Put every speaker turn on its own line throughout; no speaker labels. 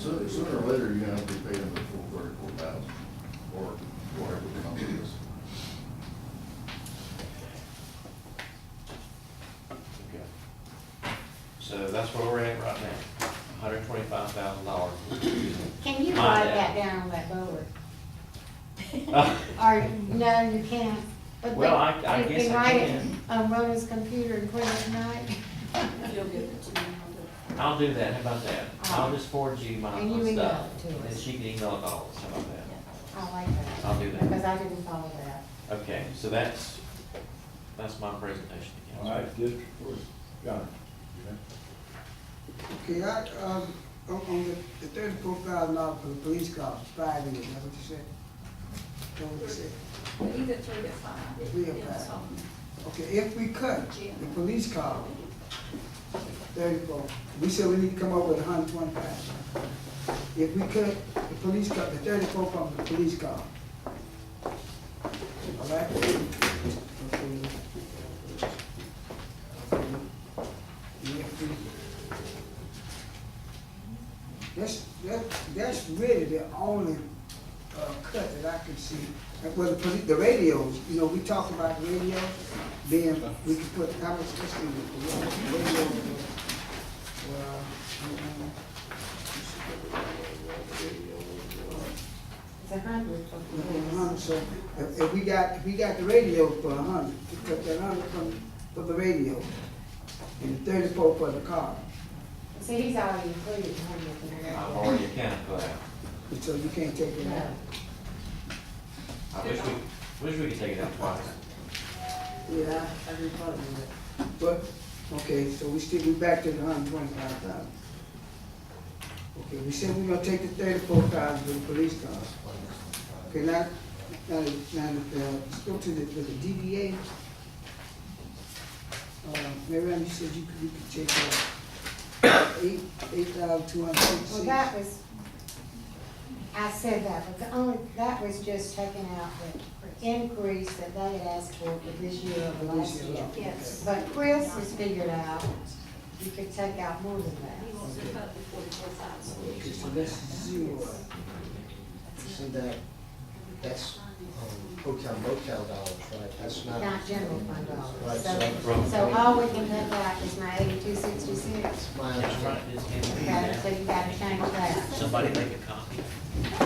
Sooner, sooner or later, you're gonna have to be paying the full thirty-four thousand, or whatever the number is.
Okay. So that's where we're at right now, hundred twenty-five thousand dollars.
Can you
My
write
bad.
that down on that board?
Uh.
Or, no, you can't. But
Well, I-
you
I guess I
write it um,
can.
On Rhoda's computer and print it tonight,
If you'll give it to me, I'll do it.
I'll do that, how about that? I'll just forward you my
And you
my
email
stuff.
it to
And
us.
she can email it all, how about that?
I like that.
I'll do that.
Because I didn't follow that.
Okay, so that's, that's my presentation. to
All
council.
right, District Four, John.
Okay, I, um, on, on the thirty-four thousand dollars for the police cops, five years, that's what you said? That's what you said?
Well, you get three to five.
Three to
Depends
five.
on-
Okay, if we cut the police car, thirty-four, we said we need to come up with a hundred twenty-five. If we cut the police car, the thirty-four from the police car. All right? Okay. Yeah, we- That's, that, that's really the only, uh, cut that I can see. Like, Well, the, poli- the radios, you know, we talked about radio being, we could put, how much, let's see, the radio, radio, well, um,
It's a hundred.
a hundred, uh, so if, if we got, if we got the radio for a hundred, to cut that hundred from, for the radio, and thirty-four for the car,
See, he's already included a hundred. in that.
I've already accounted for that.
so you can't take it out.
I
No.
wish we, wish we could take it out twice.
Yeah, I agree with that. But, okay, so we still, we back to the hundred twenty-five thousand. Okay, we said we're gonna take the thirty-four thousand for the police cars. Okay, now, now, now, uh, let's go to the, to the DDA. Uh, Maryam, you said you could, you could take uh, eight, eight thousand two hundred
Well,
sixty-six.
that was, I said that, but the only, that was just taking out the increase that they had asked for for this year over last year.
Yes.
But Chris has figured out you could take out more than
He
that.
wants to cut the forty-four thousand.
Okay, so that's zero.
See that, that's um, hotel motel dollars, right? That's not.
Not general fund
Right,
dollars. So,
so-
so all we can look at is my eighty-two sixty-six.
That's my
That's right,
understanding.
it's
Okay,
in
so
there.
you gotta change that.
Somebody make a copy. Uh, I'm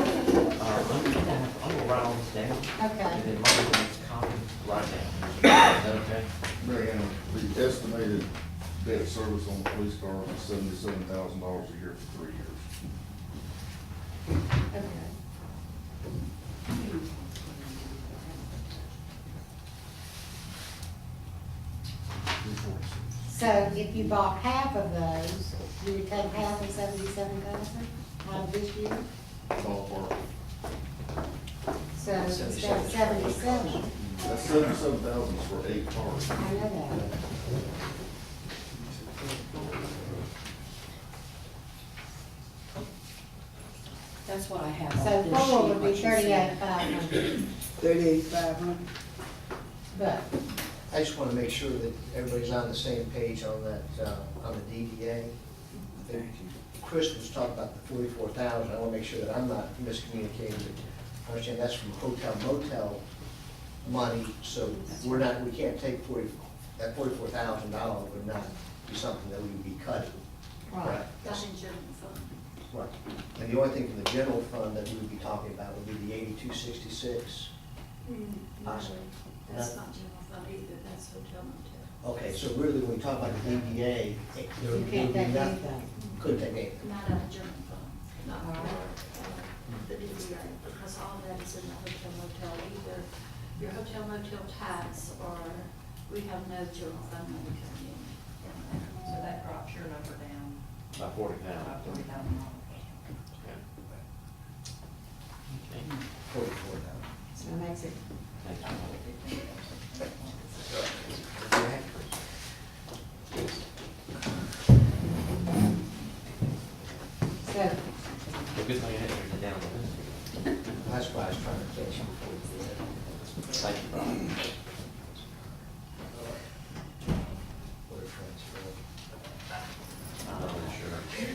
gonna, I'm gonna write all this down, and
Okay,
then Marty will make a copy right now. Is that okay?
Mary Ann, the estimated debt service on the police car is seventy-seven thousand dollars a year for three years.
okay. So if you bought half of those, you would take half of seventy-seven thousand out of this year?
Ballpark.
So instead of seventy-seven,
That's seventy-seven thousand for eight cars.
I know that.
That's what I have
So
on this
four
sheet,
would
what
be
you said.
thirty-eight five hundred,
Thirty-eight five hundred.
but
I just want to make sure that everybody's on the same page on that, uh, on the DDA. I think Chris was talking about the forty-four thousand. I want to make sure that I'm not miscommunicating. I understand that's from hotel motel money, so we're not, we can't take forty, that forty-four thousand dollar would not be something that we would be cutting.
Right.
That's in general fund.
Right, and the only thing from the general fund that we would be talking about would be the eighty-two sixty-six. Awesome.
That's not general fund either, that's hotel motel.
Okay, so really, when we talk about the DDA, it- there
you
would be
can't take
nothing,
anything.
couldn't take anything.
Not out of general fund, not
All
for,
right.
uh, the DDR, because all that is in the hotel motel, either your hotel motel tax, or we have no general fund money coming in.
So that drops your number down
By forty
by
thousand.
forty thousand dollars.
Okay.
Forty-four thousand.
So that makes it,
Thank you.
so,
Well, good thing I had it written down.
That's why I was trying to catch you before we did.
Thank you, Brian.